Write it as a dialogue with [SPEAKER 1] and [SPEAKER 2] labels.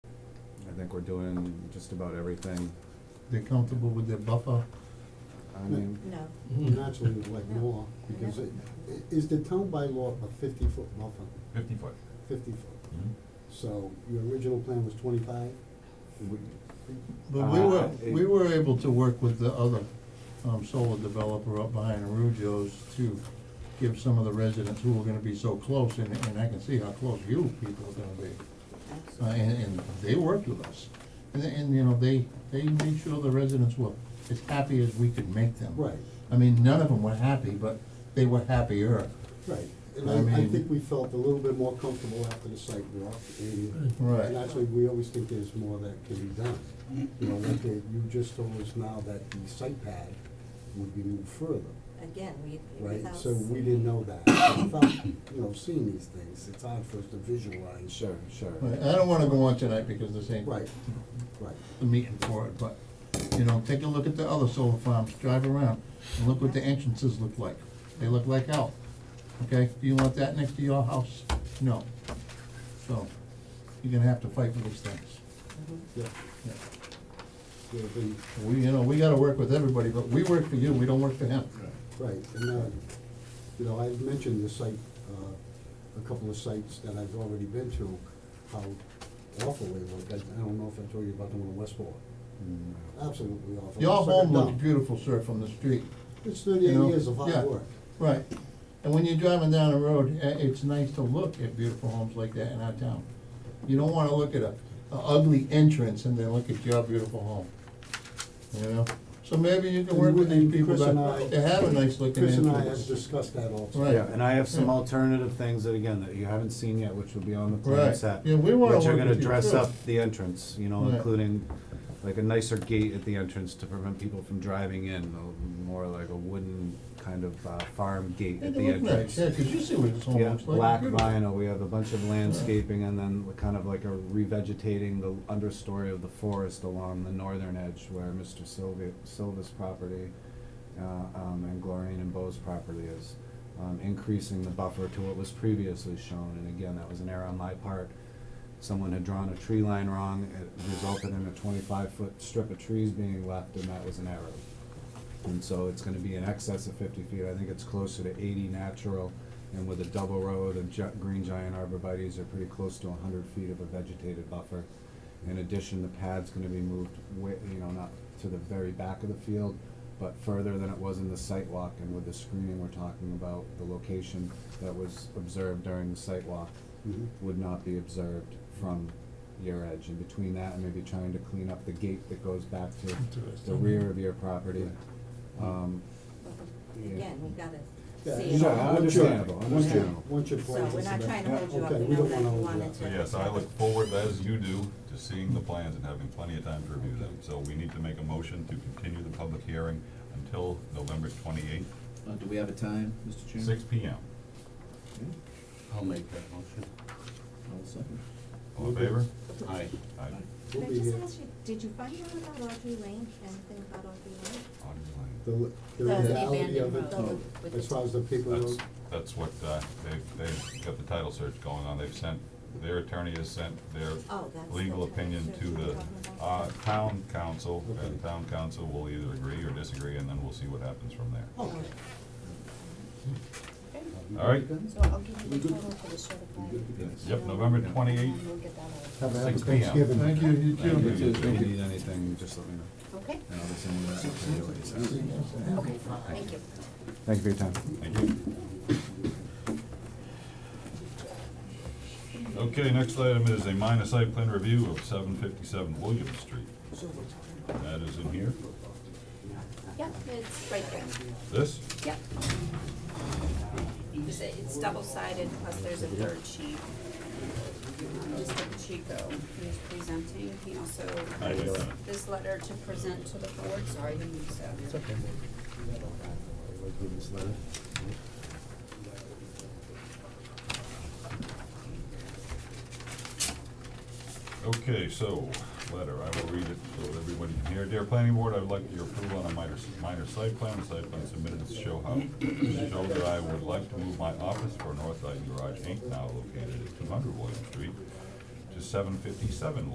[SPEAKER 1] I think we're doing just about everything.
[SPEAKER 2] They're comfortable with their buffer?
[SPEAKER 1] I mean,
[SPEAKER 3] No,
[SPEAKER 2] Mm-hmm.
[SPEAKER 4] Naturally, we'd like more, because
[SPEAKER 3] Yeah.
[SPEAKER 4] it, i- is the town by law a fifty-foot buffer,
[SPEAKER 5] Fifty foot.
[SPEAKER 4] fifty foot? So your original plan was twenty-five?
[SPEAKER 1] we,
[SPEAKER 2] But we were,
[SPEAKER 1] Uh, it-
[SPEAKER 2] we were able to work with the other, um, solar developer up behind Arujos to give some of the residents who were gonna be so close, and, and I can see how close you people are gonna be. Uh,
[SPEAKER 3] absolutely.
[SPEAKER 2] and, and they worked with us, and, and, you know, they, they made sure the residents were as happy as we could make them.
[SPEAKER 4] Right,
[SPEAKER 2] I mean, none of them were happy, but they were happier.
[SPEAKER 4] right. And
[SPEAKER 2] I
[SPEAKER 4] I, I
[SPEAKER 2] mean-
[SPEAKER 4] think we felt a little bit more comfortable after the site walk, and
[SPEAKER 2] Right.
[SPEAKER 4] and that's why we always think there's more that can be done. You know, like, uh, you just told us now that the site pad would be moved further.
[SPEAKER 3] Again, we,
[SPEAKER 4] right?
[SPEAKER 3] without.
[SPEAKER 4] So we didn't know that. Without, you know, seeing these things, it's hard for us to visualize.
[SPEAKER 1] sure, sure.
[SPEAKER 2] Right, I don't wanna go on tonight because this ain't
[SPEAKER 4] Right, right.
[SPEAKER 2] the meeting for it, but, you know, take a look at the other solar farms, drive around, and look what the entrances look like. They look like hell, okay? Do you want that next to your house? No. So, you're gonna have to fight for these things.
[SPEAKER 3] Mhm.
[SPEAKER 4] Yeah,
[SPEAKER 2] Yeah.
[SPEAKER 4] yeah, the-
[SPEAKER 2] We, you know, we gotta work with everybody, but we work for you, we don't work for him.
[SPEAKER 4] Right, and, uh, you know, I've mentioned the site, uh, a couple of sites that I've already been to, how awful they look. I I don't know if I told you about the one in Westport.
[SPEAKER 1] Mm,
[SPEAKER 4] Absolutely awful.
[SPEAKER 2] Your
[SPEAKER 4] It's like a
[SPEAKER 2] home looks
[SPEAKER 4] dump.
[SPEAKER 2] beautiful, sir, from the street.
[SPEAKER 4] It's
[SPEAKER 2] you
[SPEAKER 4] thirty-eight
[SPEAKER 2] know?
[SPEAKER 4] years of
[SPEAKER 2] Yeah.
[SPEAKER 4] hard work.
[SPEAKER 2] Right. And when you're driving down the road, i- it's nice to look at beautiful homes like that in our town. You don't wanna look at a, a ugly entrance and then look at your beautiful home, you know? So maybe you can work with these
[SPEAKER 4] And
[SPEAKER 2] people
[SPEAKER 4] Chris and I-
[SPEAKER 2] that, that have a nice looking
[SPEAKER 4] Chris
[SPEAKER 2] entrance.
[SPEAKER 4] and I have discussed that also.
[SPEAKER 2] Right.
[SPEAKER 1] Yeah, and I have some
[SPEAKER 2] Yeah.
[SPEAKER 1] alternative things that, again, that you haven't seen yet, which will be on the
[SPEAKER 2] Right.
[SPEAKER 1] plan set.
[SPEAKER 2] Yeah, we wanna
[SPEAKER 1] Which are
[SPEAKER 2] work
[SPEAKER 1] gonna
[SPEAKER 2] with you,
[SPEAKER 1] dress
[SPEAKER 2] too.
[SPEAKER 1] up the entrance, you know,
[SPEAKER 2] Right.
[SPEAKER 1] including like a nicer gate at the entrance to prevent people from driving in, a- more like a wooden kind of uh, farm gate
[SPEAKER 2] Yeah,
[SPEAKER 1] at
[SPEAKER 2] they
[SPEAKER 1] the
[SPEAKER 2] look nice,
[SPEAKER 1] entrance.
[SPEAKER 2] yeah, 'cause you see what this home
[SPEAKER 1] Yeah,
[SPEAKER 2] looks like.
[SPEAKER 1] black
[SPEAKER 2] Beautiful.
[SPEAKER 1] vinyl, we have a bunch of landscaping and then kind of like a revegetating the understory of the forest along the northern edge where Mr. Sylvia, Silva's property, uh, um, and Glorine and Bo's property is. Um, increasing the buffer to what was previously shown, and again, that was an error on my part. Someone had drawn a tree line wrong, it resulted in a twenty-five foot strip of trees being left, and that was an error. And so it's gonna be in excess of fifty feet, I think it's closer to eighty natural, and with a double row, the gi- green giant arborvitae's are pretty close to hundred feet of a vegetated buffer. In addition, the pad's gonna be moved wi- you know, not to the very back of the field, but further than it was in the site walk, and with the screening we're talking about, the location that was observed during the site walk
[SPEAKER 4] Mhm.
[SPEAKER 1] would not be observed from your edge, and between that and maybe trying to clean up the gate that goes back to the rear of your property. Um,
[SPEAKER 3] But we-
[SPEAKER 1] Yeah.
[SPEAKER 3] Again, we gotta
[SPEAKER 4] Yeah,
[SPEAKER 3] see
[SPEAKER 4] you
[SPEAKER 3] it
[SPEAKER 1] no,
[SPEAKER 4] know,
[SPEAKER 3] all.
[SPEAKER 4] once you're-
[SPEAKER 1] understandable,
[SPEAKER 4] once you're-
[SPEAKER 1] understandable.
[SPEAKER 4] Once you're.
[SPEAKER 3] So we're not trying to hold you up,
[SPEAKER 4] Okay,
[SPEAKER 3] we
[SPEAKER 4] we don't
[SPEAKER 3] know that you
[SPEAKER 4] wanna hold you
[SPEAKER 3] wanted
[SPEAKER 4] up.
[SPEAKER 3] to.
[SPEAKER 5] So yes, I look forward, as you do, to seeing the plans and having plenty of time to review them. So we need to make a motion to continue the public hearing until November twenty-eighth,
[SPEAKER 6] Uh, do we have a time, Mr. Chairman?
[SPEAKER 5] six P M.
[SPEAKER 7] I'll make that motion.
[SPEAKER 6] I'll second.
[SPEAKER 5] All in favor?
[SPEAKER 7] Aye.
[SPEAKER 5] Aye.
[SPEAKER 3] Can
[SPEAKER 4] We'll
[SPEAKER 3] I
[SPEAKER 4] be
[SPEAKER 3] just
[SPEAKER 4] here.
[SPEAKER 3] ask you, did you find out about Audrey Lane, anything about Audrey Lane?
[SPEAKER 5] Audrey Lane.
[SPEAKER 4] The, li- the
[SPEAKER 3] The
[SPEAKER 4] reality of
[SPEAKER 3] abandoned
[SPEAKER 4] it,
[SPEAKER 3] road with the-
[SPEAKER 4] as far as the paper
[SPEAKER 5] That's,
[SPEAKER 4] road,
[SPEAKER 5] that's what, uh, they've, they've got the title search going on. They've sent, their attorney has sent their
[SPEAKER 3] Oh, that's the
[SPEAKER 5] legal
[SPEAKER 3] title
[SPEAKER 5] opinion
[SPEAKER 3] search
[SPEAKER 5] to
[SPEAKER 3] you were
[SPEAKER 5] the,
[SPEAKER 3] talking about?
[SPEAKER 5] uh, town council.
[SPEAKER 4] Okay.
[SPEAKER 5] And town council will either agree or disagree, and then we'll see what happens from there.
[SPEAKER 3] Oh,
[SPEAKER 4] okay.
[SPEAKER 5] All right.
[SPEAKER 8] So I'll give you the total for the certified.
[SPEAKER 5] Yep, November
[SPEAKER 8] And
[SPEAKER 5] twenty-eighth,
[SPEAKER 8] we'll get that out.
[SPEAKER 4] Have a happy
[SPEAKER 5] 6 p.m.
[SPEAKER 4] Thanksgiving.
[SPEAKER 2] Thank you, you too.
[SPEAKER 6] Thank you.
[SPEAKER 1] If you need anything, just let me know,
[SPEAKER 8] Okay,
[SPEAKER 1] and I'll just send you that, I'll do what you said.
[SPEAKER 8] okay, thank you.
[SPEAKER 1] Thank you for your time.
[SPEAKER 5] thank you. Okay, next item is a minor site plan review of seven fifty-seven William Street. That is in here,
[SPEAKER 8] Yep, it's right there.
[SPEAKER 5] this,
[SPEAKER 8] Yep. It's- It's double-sided, plus there's a third sheet. Mr. Pacheco, he is presenting, he also
[SPEAKER 5] I did
[SPEAKER 8] has
[SPEAKER 5] that.
[SPEAKER 8] this letter to present to the board, sorry, you need to.
[SPEAKER 5] Okay, so, letter, I will read it so that everybody can hear. Dear Planning Board, I would like your approval on a minor, minor site plan, the site plan submitted to show how, to show that I would like to move my office for North Side Garage Inc., now located at two hundred William Street, to seven fifty-seven